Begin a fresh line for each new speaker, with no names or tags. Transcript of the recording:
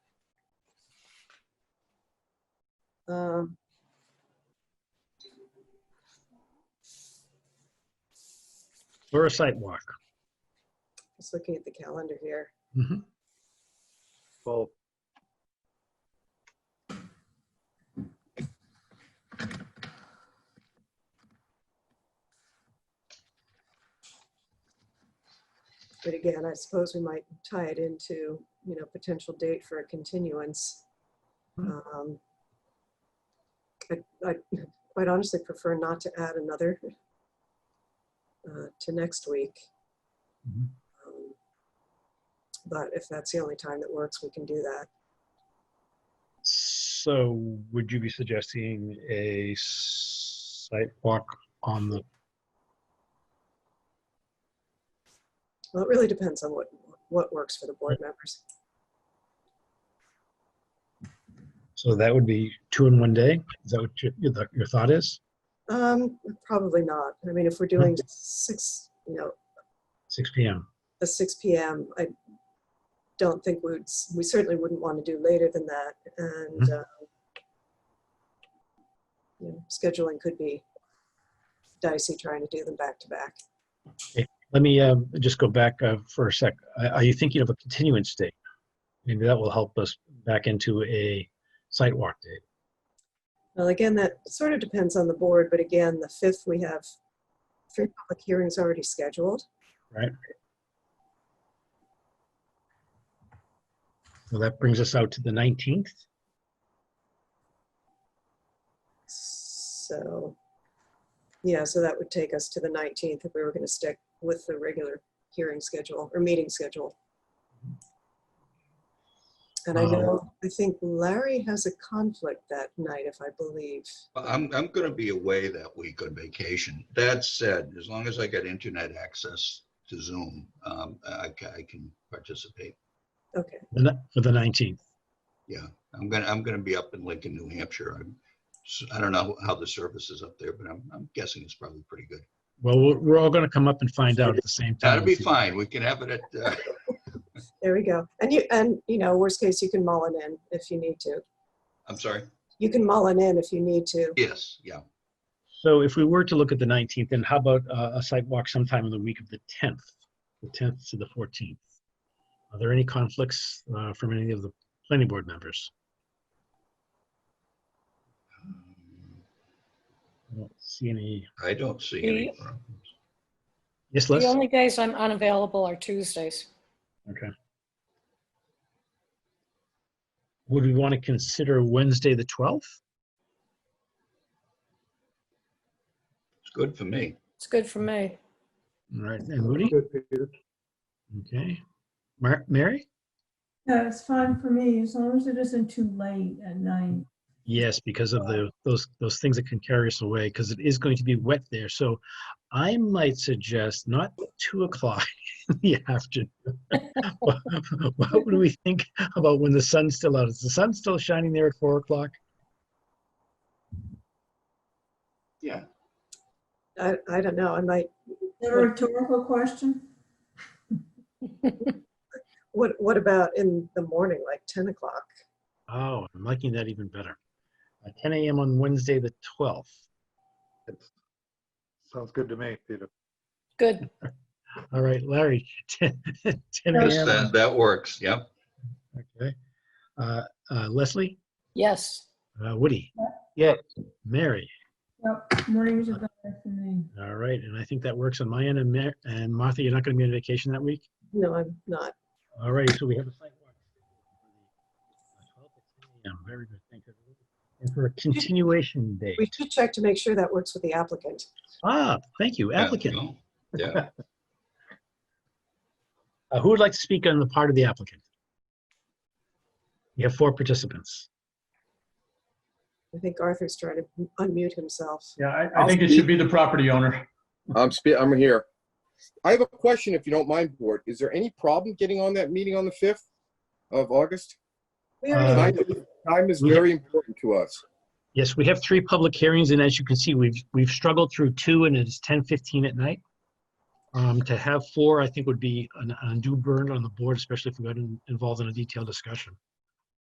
um,
or a site walk.
just looking at the calendar here.
Mhm.
Well,
But again, I suppose we might tie it into, you know, potential date for a continuance.
Hmm.
Um, I'd I'd quite honestly prefer not to add another uh, to next week.
Mhm.
Um, But if that's the only time that works, we can do that.
So would you be suggesting a s- site walk on the,
Well, it really depends on what, what works for the board members.
so that would be two in one day? Is that what your, your- your thought is?
Um, Probably not. I mean, if we're doing six, you know,
Six PM?
a six PM, I don't think we would, we certainly wouldn't want to do later than that. And, uh, you know, scheduling could be dicey trying to do them back to back.
Let me um, just go back uh, for a sec. Are are you thinking of a continuance date? Maybe that will help us back into a site walk date.
Well, again, that sort of depends on the board, but again, the fifth, we have three public hearings already scheduled.
So that brings us out to the 19th.
So, yeah, so that would take us to the 19th if we were going to stick with the regular hearing schedule or meeting schedule. And I know, I think Larry has a conflict that night, if I believe.
I'm, I'm going to be away that week on vacation. That said, as long as I get internet access to Zoom, um, I, ca- I can participate.
Okay,
The ni- For the 19th.
Yeah, I'm gonna, I'm gonna be up in Lincoln, New Hampshire. I'm, s- I don't know how the service is up there, but I'm, I'm guessing it's probably pretty good.
Well, we're we're all going to come up and find out at the same time.
That'll be fine. We can have it at, uh,
there we go. And you, and you know, worst case, you can mull it in if you need to.
I'm sorry.
You can mull it in if you need to.
Yes, yeah.
So if we were to look at the 19th, then how about uh, a site walk sometime in the week of the 10th, the 10th to the 14th? Are there any conflicts uh, from any of the planning board members? I don't see any.
I don't see any. problem.
Yes,
The
Les?
only days I'm unavailable are Tuesdays.
Okay. Would we want to consider Wednesday, the 12th?
It's good for me.
It's good for me.
All right, and Moody?
good, Peter.
Okay. Mar- Mary?
Yeah, it's fine for me, as long as it isn't too late at night.
Yes, because of the, those, those things that can carry us away, because it is going to be wet there. So I might suggest not two o'clock in the afternoon. What would we think about when the sun's still out? Is the sun still shining there at four o'clock?
Yeah.
I, I don't know, I might,
Is that a rhetorical question?
what, what about in the morning, like 10 o'clock?
Oh, I'm liking that even better. Uh, 10 a.m. on Wednesday, the 12th.
Sounds good to me, Peter.
Good.
All right, Larry, 10 10
Yes,
a.m.
Yes, that, that works. Yep.
Okay. Uh, uh, Leslie,
Yes.
uh, Woody?
Yes.
Mary?
Yep, mornings are better for me.
All right, and I think that works on my end. And Mar- and Martha, you're not going to be on vacation that week?
No, I'm not.
All right, so we have a site walk. Yeah, very good, thank you. And for a continuation date.
We should check to make sure that works with the applicant.
Ah, thank you,
Yeah,
applicant.
no, Yeah.
Uh, Who would like to speak on the part of the applicant? We have four participants.
I think Arthur's trying to unmute himself.
Yeah, I, I think it should be the property owner.
I'm spe- I'm here. I have a question, if you don't mind, board. Is there any problem getting on that meeting on the fifth of August?
We
Uh,
already,
Time time is
we-
very important to us.
Yes, we have three public hearings, and as you can see, we've, we've struggled through two, and it's 10:15 at night. Um, To have four, I think, would be an undue burden on the board, especially if we got in- involved in a detailed discussion.